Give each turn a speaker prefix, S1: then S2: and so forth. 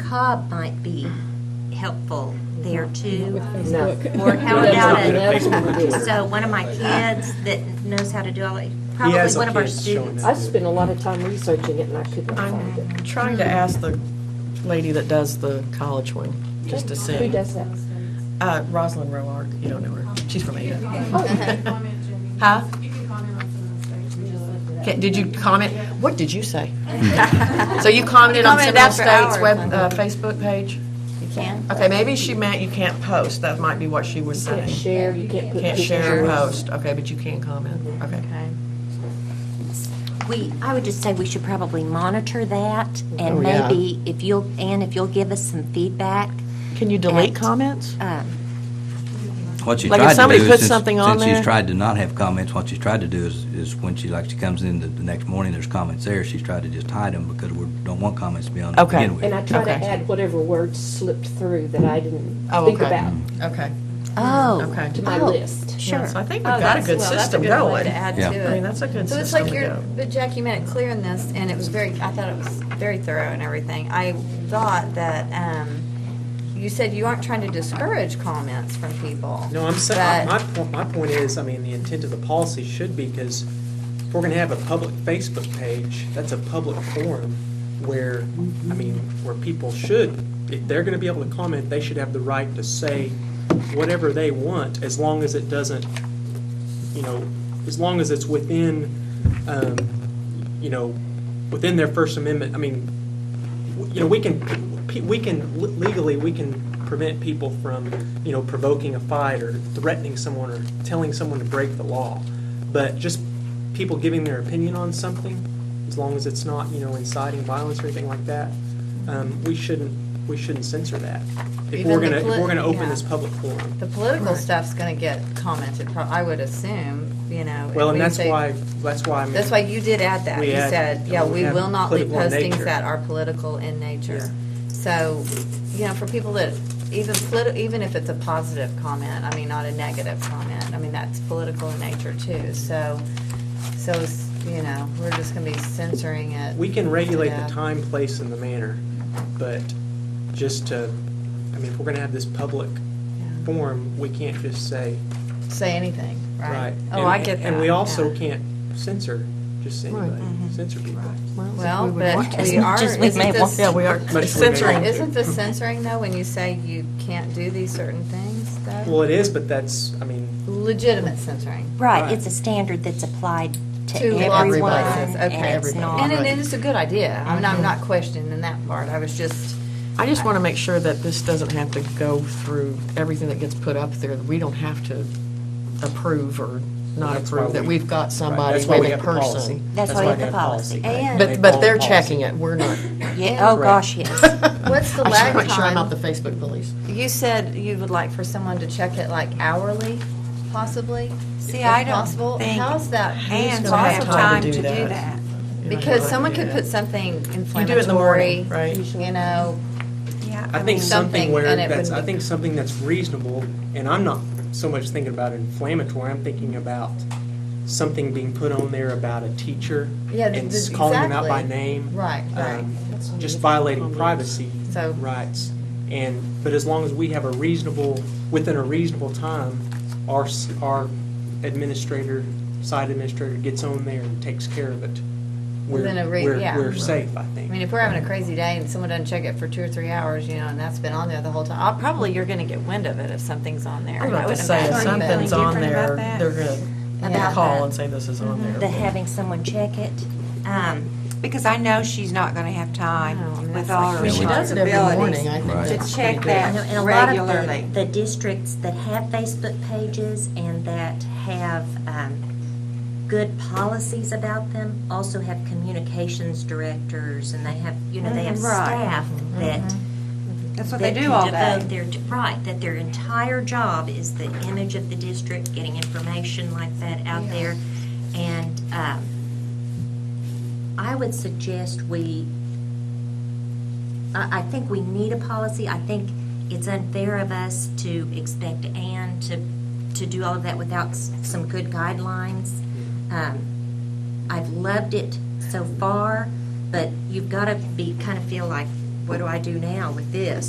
S1: hub might be helpful there too.
S2: No.
S1: Or how
S2: That's
S1: about
S2: not
S1: it?
S2: good. That's not good.
S1: So one of my kids that knows how to do all, it- probably
S3: has a
S1: one of our
S3: kid showing
S1: students.
S2: I spent a lot of time researching it and I could not find it.
S4: Trying to ask the lady that does the college one, just to
S2: Who
S4: see.
S2: does that?
S4: Uh, Rosalind Roark, you don't know her, she's from Ada. Huh?
S5: Oh.
S6: Huh? You can comment on some of the mistakes.
S4: Okay, Did you comment, what did you say? So you commented on Seminole State's web, uh, Facebook page?
S5: You can.
S4: Okay, maybe she meant you can't post, that might be what she was
S2: You can't
S4: saying.
S2: share, you can't put
S4: Can't
S2: pictures.
S4: share or post, okay, but you can comment, okay.
S1: We, I would just say we should probably monitor that
S3: Oh,
S1: and
S3: yeah.
S1: maybe if you'll, Anne, if you'll give us some feedback.
S4: Can you
S1: delete
S4: delete comments?
S1: um,
S7: What she
S4: Like, if
S7: tried to
S4: somebody
S7: do
S4: puts
S7: is, since,
S4: something on
S7: since she's
S4: there-
S7: tried to not have comments, what she's tried to do is, is when she, like, she comes in the, the next morning, there's comments there, she's tried to just hide them because we don't want comments to be on there to
S4: Okay.
S7: begin with.
S2: And I try to
S4: Okay.
S2: add whatever words slipped through that I didn't
S4: Oh,
S2: think
S4: okay.
S2: about
S4: Okay.
S1: Oh,
S4: Okay.
S2: to my
S5: Oh.
S2: list.
S1: sure.
S4: So I think we've
S5: Oh,
S4: got a
S5: that's-
S4: good
S5: well, that's
S4: system
S5: good one
S4: going.
S5: To add
S7: Yeah.
S5: to it.
S4: I mean, that's a good
S5: So it's
S4: system
S5: like
S4: to
S5: you're,
S4: go.
S5: but Jackie made it clear in this, and it was very, I thought it was very thorough and everything. I thought that, um, you said you aren't trying to discourage comments from people.
S3: No, I'm saying, my,
S5: but-
S3: point- my point is, I mean, the intent of the policy should be, because if we're gonna have a public Facebook page, that's a public forum where, I mean, where people should, if they're gonna be able to comment, they should have the right to say whatever they want, as long as it doesn't, you know, as long as it's within, um, you know, within their First Amendment, I mean, w- you know, we can, pe- we can, le- legally, we can prevent people from, you know, provoking a fight or threatening someone or telling someone to break the law. But just people giving their opinion on something, as long as it's not, you know, inciting violence or anything like that, um, we shouldn't, we shouldn't censor that. If
S5: Even
S3: we're
S5: the
S3: gonna, if
S5: polit-
S3: we're gonna open
S5: yeah.
S3: this public forum.
S5: The political stuff's gonna get commented, pro- I would assume, you know. if
S3: Well, and
S5: we
S3: that's
S5: say-
S3: why, that's why I mean.
S5: That's why you did add that.
S3: We
S5: You
S3: add-
S5: said,
S3: and
S5: yeah,
S3: we
S5: we
S3: have
S5: will not leave
S3: political in
S5: postings
S3: nature.
S5: that are political in nature. So, you know, for people that, even politi, even if it's a positive comment, I mean, not a negative comment, I mean, that's political in nature too. So, so, it's, you know, we're just gonna be censoring it.
S3: We can regulate
S5: Yeah.
S3: the time, place, and the manner, but just to, I mean, if we're gonna have this public
S5: Yeah.
S3: forum, we can't just say,
S5: Say anything,
S3: right.
S5: right? Oh, I
S3: And-
S5: get that.
S3: And we also
S5: yeah.
S3: can't censor just anybody, censor people.
S5: Well, but
S1: As
S5: we
S1: much
S5: are,
S1: as we may
S5: isn't
S1: want.
S5: this?
S4: Yeah, we are
S3: we may-
S4: censoring.
S5: Isn't this censoring though, when you say you can't do these certain things though?
S3: Well, it is, but that's, I mean,
S5: Legitimate censoring.
S1: Right, it's a standard that's applied to
S5: To lots of
S1: everyone,
S5: places, okay,
S1: and it's
S4: everybody.
S1: not.
S5: And it is a good idea. I mean, I'm not questioning that part. I was just,
S4: I just want to make sure that this doesn't have to go through everything that gets put up there. that We don't have to approve or not
S3: That's why
S4: approve, that
S3: we-
S4: we've got
S3: right,
S4: somebody
S3: that's why we
S4: with a
S3: have the policy.
S4: person.
S1: That's why we have
S3: we
S1: the policy.
S3: right? They
S4: But, but
S3: follow
S4: they're
S3: policy.
S4: checking it, we're not.
S1: Yeah, oh
S3: Correct.
S1: gosh, yes.
S5: what's the
S4: I just want to
S5: lag
S4: make sure I'm not the
S5: time?
S4: Facebook police.
S5: You said you would like for someone to check it like hourly, possibly?
S8: See,
S5: if
S8: I don't
S5: possible.
S8: think
S5: How's that? who's
S8: Hands
S5: gonna
S4: have
S8: have
S4: time
S8: time
S4: to
S8: to do
S4: do that.
S8: that.
S5: Because someone could put something
S4: You do it in the morning,
S5: inflammatory,
S4: right?
S5: you know,
S8: Yeah,
S3: I think
S5: mean,
S3: something
S5: something,
S3: where,
S5: and it
S3: that's,
S5: would
S3: I
S5: be-
S3: think something that's reasonable, and I'm not so much thinking about inflammatory, I'm thinking about something being put on there about a teacher
S5: Yeah,
S3: and
S5: th-
S3: s- calling them out by
S5: exactly.
S3: name.
S5: right, right.
S3: um, just violating privacy
S5: So-
S3: rights. And, but as long as we have a reasonable, within a reasonable time, our, s- our administrator, site administrator gets on there and takes care of it, we're,
S5: Within a rea-
S3: we're,
S5: yeah.
S3: we're safe, I
S5: I
S3: think.
S5: mean, if we're having a crazy day and someone doesn't check it for two or three hours, you know, and that's been on there the whole time, I'll, probably you're gonna get wind of it if something's on there.
S4: I'm not
S5: would
S4: just saying,
S5: imagine, but-
S4: something's on
S8: different
S4: there,
S8: about that.
S4: they're going to
S5: About
S4: call
S5: that.
S4: and say this is on there.
S1: The having someone check it. Um,
S8: because I know she's not gonna have
S5: No, I mean,
S8: time with
S5: that's
S8: all
S5: like-
S8: her
S4: But she does it every morning,
S8: responsibilities
S4: I
S7: Right.
S4: think.
S8: to check
S1: I know,
S8: that
S1: and a lot of
S8: regularly.
S1: the, the districts that have Facebook pages and that have, um, good policies about them also have communications directors and they have, you know, they have
S8: Mhm, right.
S1: staff
S8: Mm-hmm.
S1: that.
S8: That's what they
S1: that
S8: do
S1: can
S8: all
S1: devote
S8: day.
S1: their- Right, that their entire job is the image of the district, getting information like that out there. And um, I would suggest we, I, I think we need a policy. I think it's unfair of us to expect Anne to, to do all of that without s- some good guidelines. Um, I've loved it so far, but you've got to be, kind of feel like what do I do now with this?